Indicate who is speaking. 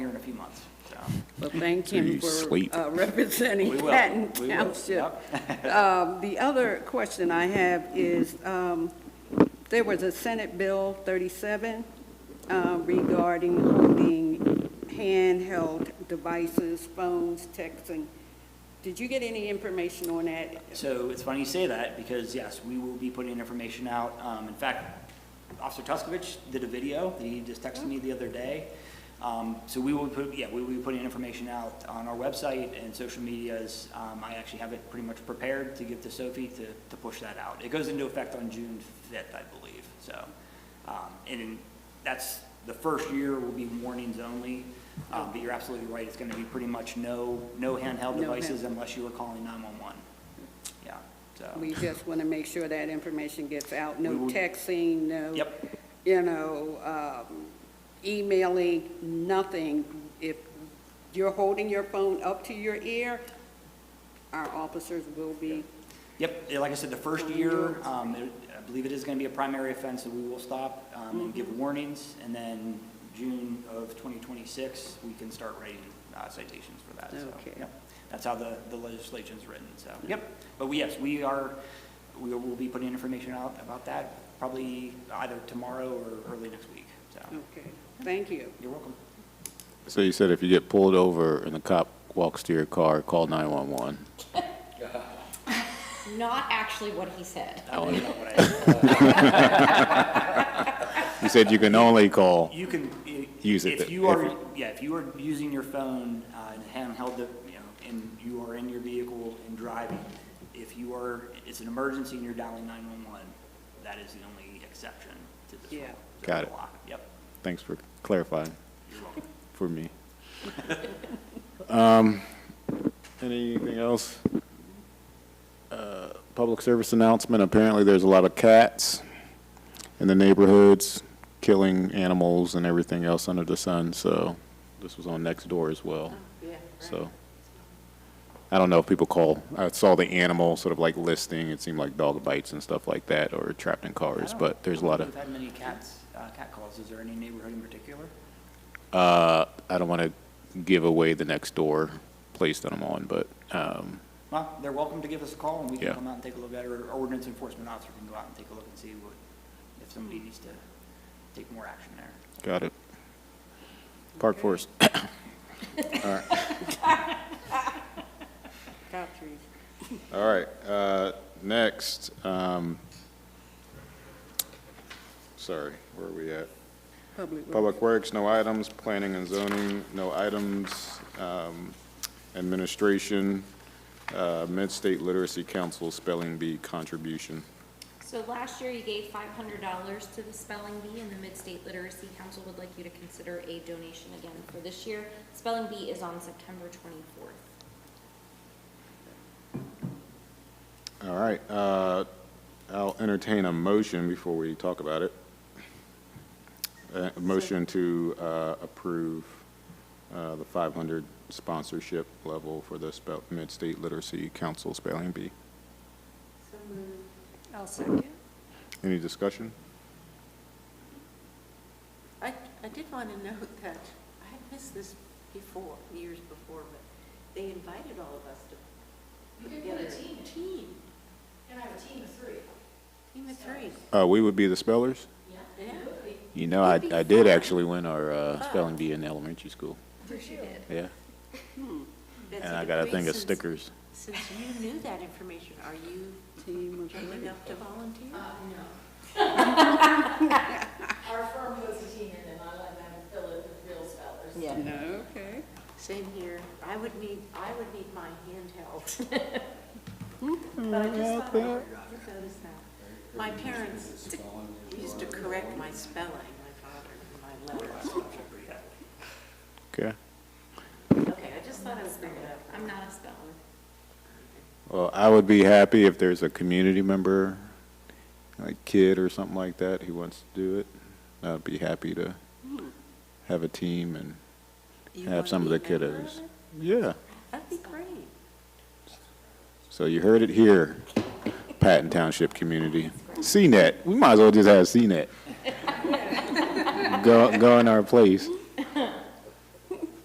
Speaker 1: months, so.
Speaker 2: Well, thank him
Speaker 3: You
Speaker 2: for
Speaker 3: sleep.
Speaker 2: uh, representing
Speaker 1: We will.
Speaker 2: Patton
Speaker 1: We will.
Speaker 2: Township. Um, The other question I have is, um, there was a Senate Bill 37 uh, regarding holding handheld devices, phones, texting. Did you get any information on that?
Speaker 1: So it's funny you say that, because yes, we will be putting information out. Um, in fact, Officer Tuskovich did a video that he just texted me the other day. Um, so we will put, yeah, we will be putting information out on our website and social medias. Um, I actually have it pretty much prepared to give to Sophie to, to push that out. It goes into effect on June fifth, I believe, so. Um, and in- that's, the first year will be warnings only. Um, but you're absolutely right, it's gonna be pretty much no, no handheld
Speaker 2: No
Speaker 1: devices
Speaker 2: hand-
Speaker 1: unless you are calling nine-one-one. Yeah, so,
Speaker 2: We just want to make sure that information gets out,
Speaker 1: We
Speaker 2: no
Speaker 1: will-
Speaker 2: texting, no.
Speaker 1: Yep.
Speaker 2: You know, um, emailing, nothing. If you're holding your phone up to your ear, our officers will be,
Speaker 1: yep, eh, like I said, the first year, um, it- I believe it is gonna be a primary offense, that we will stop, um, and
Speaker 2: Mm-hmm.
Speaker 1: give warnings, and then June of twenty twenty-six, we can start writing uh, citations for that, so.
Speaker 2: Okay.
Speaker 1: yep. That's how the, the legislation's written, so, yep, but we, yes, we are, we will be putting information out about that, probably either tomorrow or early next week, so,
Speaker 2: okay, thank you.
Speaker 1: you're welcome.
Speaker 3: So you said if you get pulled over and the cop walks to your car, call 911.
Speaker 4: Not actually what he said.
Speaker 3: Oh,
Speaker 1: I don't know what I-
Speaker 3: You said you can only call,
Speaker 1: You can. i-
Speaker 3: Use it
Speaker 1: If
Speaker 3: that-
Speaker 1: you are,
Speaker 3: if-
Speaker 1: yeah, if you are using your phone, uh, and handheld, the- you know, and you are in your vehicle and driving, if you are, it's an emergency and you're dialing nine-one-one, that is the only exception to this rule.
Speaker 2: Yeah.
Speaker 3: Got it.
Speaker 1: Law. Yep,
Speaker 3: thanks for clarifying
Speaker 1: you're welcome.
Speaker 3: for me. Um, Anything else? Uh, Public service announcement, apparently there's a lot of cats in the neighborhoods, killing animals and everything else under the sun, so this was on next door as well.
Speaker 2: Yeah.
Speaker 3: So, I don't know if people call, I saw the animal sort of like listing, it seemed like dog bites and stuff like that, or trapped in
Speaker 1: I
Speaker 3: cars,
Speaker 1: don't-
Speaker 3: but there's a lot of,
Speaker 1: We've had many cats, uh, cat calls. Is there any neighborhood in particular?
Speaker 3: uh, I don't want to give away the next door place that I'm on, but, um,
Speaker 1: Well, they're welcome to give us a call and we can
Speaker 3: Yeah.
Speaker 1: come out and take a look at it. Or our ordinance enforcement officer can go out and take a look and see what, if somebody needs to take more action there.
Speaker 3: got it. Park Forest,
Speaker 2: Top trees.
Speaker 3: all right, uh, next, um, sorry, where are we at?
Speaker 2: Public works.
Speaker 3: Public Works, no items. Planning and zoning, no items. Um, Administration, uh, Mid-State Literacy Council Spelling Bee contribution.
Speaker 4: So last year you gave five hundred dollars to the spelling bee and the Mid-State Literacy Council would like you to consider a donation again for this year. Spelling bee is on September twenty-fourth.
Speaker 3: All right, uh, I'll entertain a motion before we talk about it. Uh, A motion to uh, approve uh, the 500 sponsorship level for the spell- Mid-State Literacy Council Spelling Bee.
Speaker 4: I'll second.
Speaker 3: Any discussion?
Speaker 5: I, I did want to note that, I had missed this before, years before, but they invited all of us to.
Speaker 6: You
Speaker 5: put
Speaker 6: could put a
Speaker 5: together
Speaker 6: team.
Speaker 5: Team,
Speaker 6: And I have a team of three.
Speaker 5: team of three,
Speaker 3: Uh, We would be the spellers?
Speaker 6: Yeah.
Speaker 5: yeah.
Speaker 3: You know, I,
Speaker 4: It'd be
Speaker 3: I did
Speaker 4: fun.
Speaker 3: actually win our uh, spelling bee in elementary school. Yeah,
Speaker 5: Betsy
Speaker 3: and I got a
Speaker 5: DeVries,
Speaker 3: thing of
Speaker 5: since-
Speaker 3: stickers.
Speaker 5: Since you knew that information, are you
Speaker 2: Team of
Speaker 5: coming up to volunteer?
Speaker 6: Uh, no. Our firm puts a team in and I let them fill it with real spellers.
Speaker 2: three. No, okay.
Speaker 5: Same here, I would need, I would need my handheld. But I just thought, I would notice that. My parents used to correct my spelling, my father, and my letters.
Speaker 3: Okay.
Speaker 5: Okay, I just thought I would bring it up.
Speaker 4: I'm not a speller.
Speaker 3: Well, I would be happy if there's a community member, like kid or something like that, who wants to do it. I'd be happy to have a team and
Speaker 5: You
Speaker 3: have
Speaker 5: wanna
Speaker 3: some of the
Speaker 5: be a member of
Speaker 3: kiddos.
Speaker 5: it?
Speaker 3: Yeah.
Speaker 5: That'd be great.
Speaker 3: So you heard it here, Patton Township community. CNET, we might as well just have CNET. Go, go in our place.